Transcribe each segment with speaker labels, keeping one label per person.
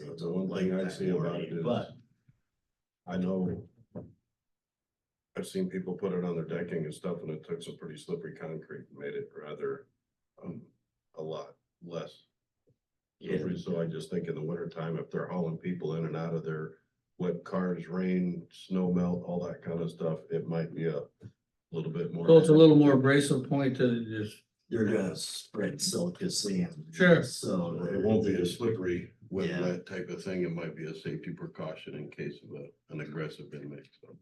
Speaker 1: thing I
Speaker 2: that
Speaker 1: see about
Speaker 2: worried,
Speaker 1: it is-
Speaker 2: But
Speaker 1: I know. I've seen people put it on their decking and stuff and it took some pretty slippery concrete, and made it rather, um, a lot less.
Speaker 2: yeah,
Speaker 1: slippery. So I just think in the winter time, if they're hauling people in and out of their wet cars, rain, snow melt, all that kind of stuff, it might be a little bit more.
Speaker 3: So it's a little more abrasive point to just,
Speaker 2: you're gonna spread silica sand.
Speaker 3: Sure.
Speaker 2: So
Speaker 1: It won't be a slippery, wet,
Speaker 2: Yeah.
Speaker 1: wet type of thing. It might be a safety precaution in case of a, an aggressive inmate, so.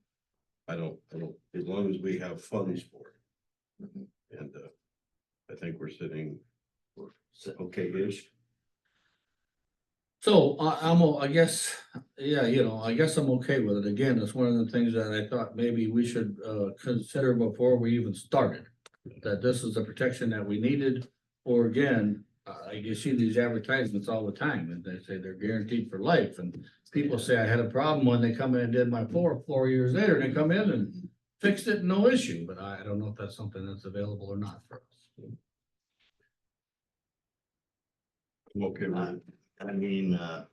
Speaker 1: I don't, I don't, as long as we have funds for
Speaker 2: Mhm.
Speaker 1: it. And, uh, I think we're sitting
Speaker 2: So-
Speaker 1: okay-ish.
Speaker 3: so I, I'm, o- I guess, yeah, you know, I guess I'm okay with it. Again, it's one of the things that I thought maybe we should, uh, consider before we even started. That this is the protection that we needed, or again, uh, you see these advertisements all the time, and they say they're guaranteed for life, and people say I had a problem when they come in and did my floor, four years later, and they come in and fixed it, no issue, but I, I don't know if that's something that's available or not for us.
Speaker 1: I'm okay with
Speaker 2: I
Speaker 1: it.
Speaker 2: I mean, uh.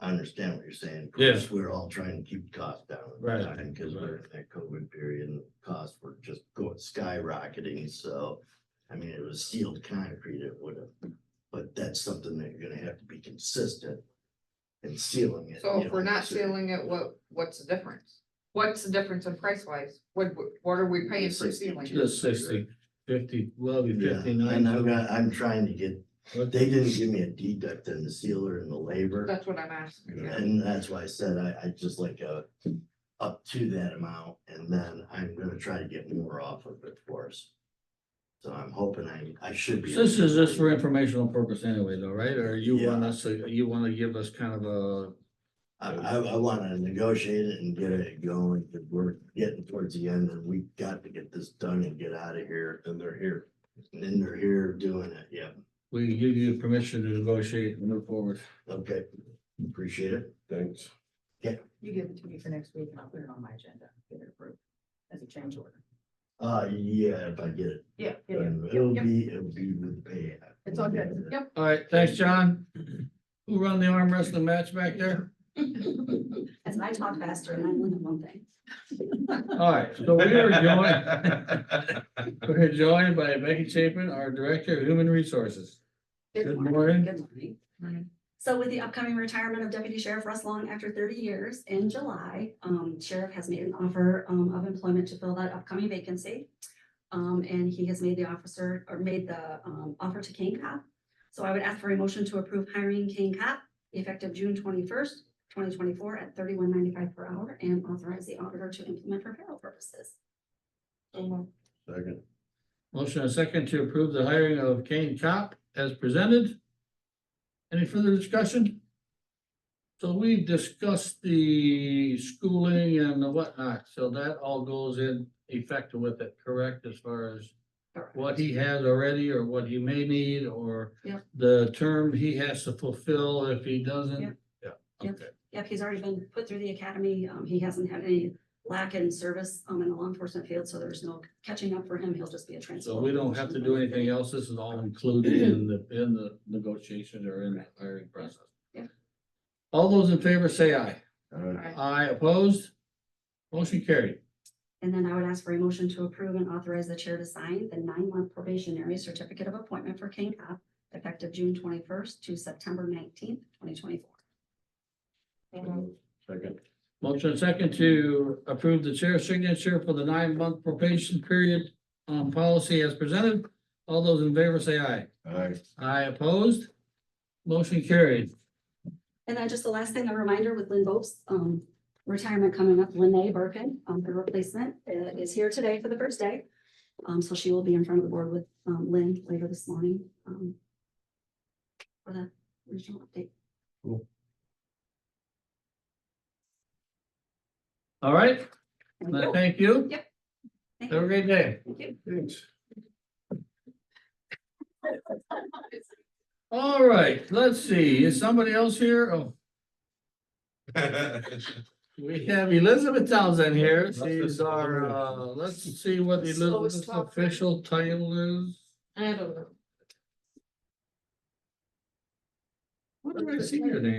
Speaker 2: I understand what you're saying. Of
Speaker 3: Yeah.
Speaker 2: course, We're all trying to keep costs down. at the
Speaker 3: Right.
Speaker 2: time Because we're in that COVID period and costs were just going skyrocketing, so. I mean, it was sealed concrete, it would have, but that's something that you're gonna have to be consistent. In sealing it.
Speaker 4: So
Speaker 2: you
Speaker 4: if we're
Speaker 2: know,
Speaker 4: not
Speaker 2: so-
Speaker 4: sealing it, what, what's the difference? What's the difference in price wise? What, what are we paying for
Speaker 2: 62.
Speaker 4: sealing?
Speaker 3: Just sixty, fifty, well, it'd be
Speaker 2: Yeah,
Speaker 3: fifty-nine.
Speaker 2: and I'm not, I'm trying to get,
Speaker 3: What
Speaker 2: they didn't give me a deduct in the sealer and the labor.
Speaker 4: That's what I'm asking. yeah.
Speaker 2: And that's why I said I, I just like a, up to that amount, and then I'm gonna try to get more off of it for us. So I'm hoping I, I should be.
Speaker 3: This is just for informational purpose anyway though, right? Or you
Speaker 2: Yeah.
Speaker 3: want us, to- you want to give us kind of a,
Speaker 2: I, I, I wanna negotiate it and get it going, 'cause we're getting towards the end, and we got to get this done and get out of here,
Speaker 1: And they're here.
Speaker 2: and then they're here doing it, yeah,
Speaker 3: we give you permission to negotiate and move forward.
Speaker 2: okay, appreciate it.
Speaker 1: Thanks.
Speaker 5: You give it to me for next week and I'll put it on my agenda, get it approved as a change order.
Speaker 2: Uh, yeah, if I get it,
Speaker 5: Yeah. yeah, yeah.
Speaker 2: and it'll
Speaker 5: Yep.
Speaker 2: be, it'll be with the pay.
Speaker 5: It's all good. Yep.
Speaker 3: All right, thanks, John. Who run the arm wrestling match back there?
Speaker 5: As I talk faster and I only have one thing.
Speaker 3: All right, so we are joined, we're joined by Becky Chapin, our Director of Human Resources. Good morning.
Speaker 5: Good morning.
Speaker 4: Morning.
Speaker 5: So with the upcoming retirement of Deputy Sheriff Russ Long after thirty years in July, um, Sheriff has made an offer, um, of employment to fill that upcoming vacancy. Um, and he has made the officer, or made the, um, offer to Kane Cop. So I would ask for a motion to approve hiring Kane Cop effective June twenty-first, twenty twenty-four at thirty-one ninety-five per hour and authorize the auditor to implement for payroll purposes.
Speaker 1: Second.
Speaker 3: Motion and second to approve the hiring of Kane Cop as presented. Any further discussion? So we discussed the schooling and the whatnot, so that all goes in effect with it, correct, as far as
Speaker 5: Correct.
Speaker 3: what he has already or what he may need or
Speaker 5: Yep.
Speaker 3: the term he has to fulfill if he doesn't?
Speaker 5: Yep.
Speaker 3: Yeah,
Speaker 5: Yep.
Speaker 3: okay.
Speaker 5: Yep, he's already been put through the academy. Um, he hasn't had any lack in service, um, in the law enforcement field, so there's no catching up for him. He'll just be a transfer.
Speaker 3: So we don't have to do anything else. This is all included in the, in the negotiation or in the hiring process.
Speaker 5: Yeah.
Speaker 3: All those in favor say aye.
Speaker 1: Alright,
Speaker 4: Alright.
Speaker 3: Aye opposed. Motion carried.
Speaker 5: And then I would ask for a motion to approve and authorize the chair to sign the nine-month probationary certificate of appointment for King Cop effective June twenty-first to September nineteenth, twenty twenty-four.
Speaker 2: Mm-hmm.
Speaker 1: Second.
Speaker 3: Motion and second to approve the chair's signature for the nine-month probation period on policy as presented. All those in favor say aye.
Speaker 1: Aye.
Speaker 3: Aye opposed. Motion carried.
Speaker 5: And then just the last thing, a reminder with Lynn Bope's um retirement coming up, Lynne Birkin, um her replacement uh, is here today for the first day. Um so she will be in front of the board with um Lynn later this morning. um, For the original update.
Speaker 3: All right,
Speaker 5: Thank
Speaker 3: I
Speaker 5: you.
Speaker 3: thank you.
Speaker 5: Thank
Speaker 3: Have a
Speaker 5: you.
Speaker 3: great day.
Speaker 5: Thank you.
Speaker 1: Thanks.
Speaker 3: All right, let's see. Is somebody else here? Oh, we have Elizabeth Townsend here. She's our, uh, let's see what the Elizabeth's official title is.
Speaker 6: I don't know.
Speaker 3: What did I see your name?